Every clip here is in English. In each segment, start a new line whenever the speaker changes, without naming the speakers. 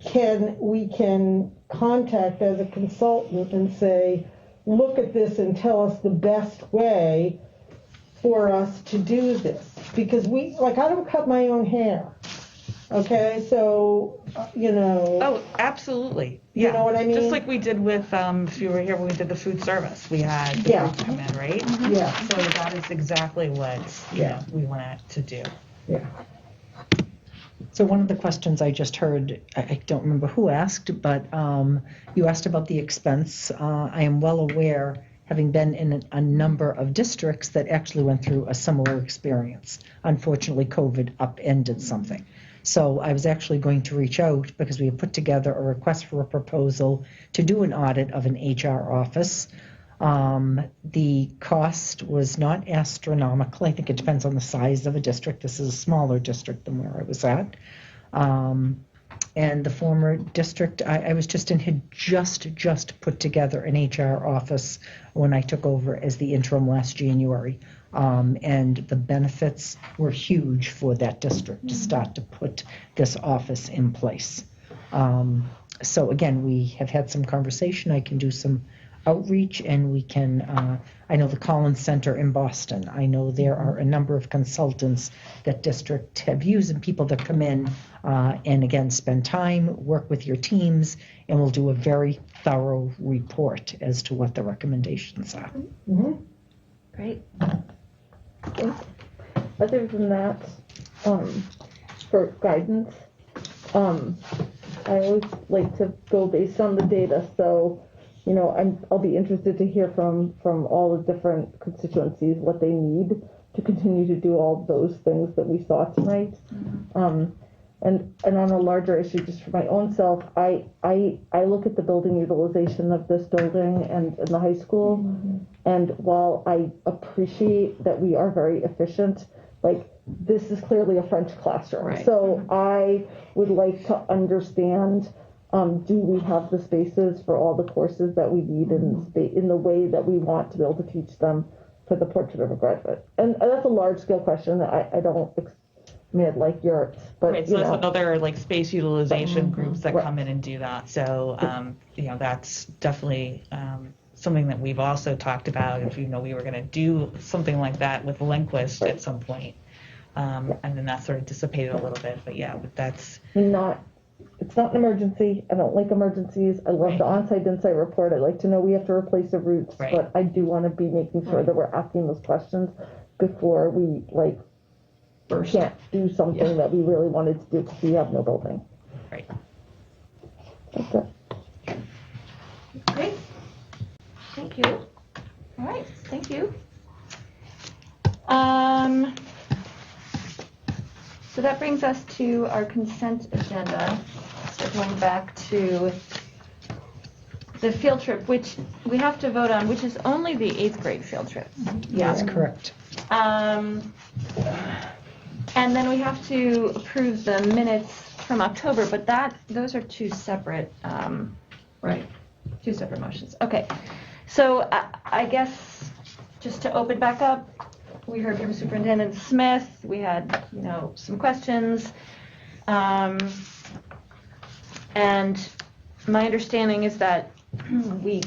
can, we can contact as a consultant and say, look at this and tell us the best way for us to do this. Because we, like, I don't cut my own hair, okay, so, uh, you know.
Oh, absolutely.
You
Yeah.
know what I mean?
Just like we did with, um, if you were here when we did the food service, we had the
Yeah. Mm-hmm.
group come in, right?
Yeah,
So that is exactly what, you know, we want to do.
yeah.
So one of the questions I just heard, I- I don't remember who asked, but um, you asked about the expense. Uh, I am well aware, having been in a number of districts that actually went through a similar experience. Unfortunately, COVID upended something. So I was actually going to reach out because we had put together a request for a proposal to do an audit of an HR office. Um, the cost was not astronomical. I think it depends on the size of a district. This is a smaller district than where I was at. Um, and the former district I, I was just in had just just put together an HR office when I took over as the interim last January. Um, and the benefits were huge for that district to start to put this office in place. Um, so again, we have had some conversation. I can do some outreach and we can, uh, I know the Collins Center in Boston. I know there are a number of consultants that district have used and people that come in uh, and again, spend time, work with your teams, and we'll do a very thorough report as to what the recommendations are.
Great. Other than that, um, for guidance, um, I always like to go based on the data, so, you know, I'm, I'll be interested to hear from, from all the different constituencies what they need to continue to do all those things that we saw tonight. Um, and, and on a larger issue, just for my own self, I, I, I look at the building utilization of this building and, and the high school. And while I appreciate that we are very efficient, like this is clearly a French classroom.
Right.
So I would like to understand, um, do we have the spaces for all the courses that we need
Mm-hmm.
in spa- in the way that we want to be able to teach them for the portrait of a graduate? And uh, that's a large scale question that I, I don't, ex- I mean, I'd like yours, but
Right, so
you
that's
know.
another like space utilization groups that
Right.
come in and do that. So, um, you know, that's definitely um, something that we've also talked about. If you know, we were going to do something like that with Lindquist at some point. Um, and then that sort of dissipated a little bit, but yeah, but that's
not, it's not an emergency. I don't like emergencies. I love the onsite insight report. I like to know we have to replace the routes,
Right.
but I do want to be making sure that we're asking those questions before we like
First.
can't do something that we really wanted to do because we have no building.
right.
That's it.
Great. Thank you. All right, thank you. Um, so that brings us to our consent agenda. So going back to the field trip, which we have to vote on, which is only the eighth grade field trip.
That's correct.
Um, and then we have to approve the minutes from October, but that, those are two separate, um, right, two separate motions. Okay, so I, I guess, just to open back up, we heard from Superintendent Smith, we had, you know, some questions. Um, and my understanding is that we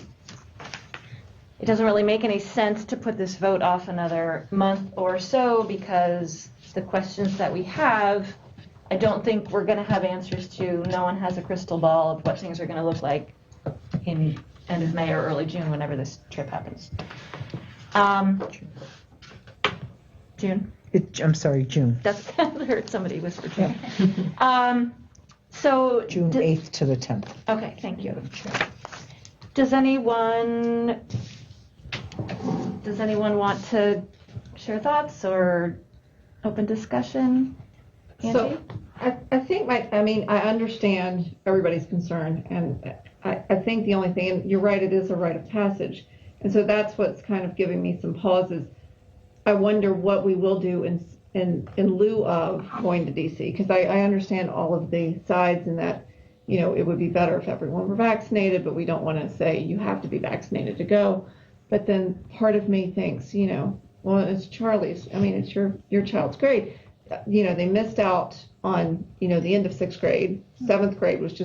it doesn't really make any sense to put this vote off another month or so because the questions that we have, I don't think we're going to have answers to. No one has a crystal ball of what things are going to look like in end of May or early June, whenever this trip happens. Um, June.
It, I'm sorry, June,
That's I heard somebody whisper June. Um, so
June
d-
8th to the 10th.
Okay, thank you. Does anyone, does anyone want to share thoughts or open discussion? Angie?
So, I, I think my, I mean, I understand everybody's concern, and I, I think the only thing, and you're right, it is a rite of passage. And so that's what's kind of giving me some pauses. I wonder what we will do in, in, in lieu of going to DC, because I, I understand all of the sides and that, you know, it would be better if everyone were vaccinated, but we don't want to say you have to be vaccinated to go. But then part of me thinks, you know, well, it's Charlie's, I mean, it's your, your child's grade. Uh, You know, they missed out on, you know, the end of sixth grade. Seventh grade was just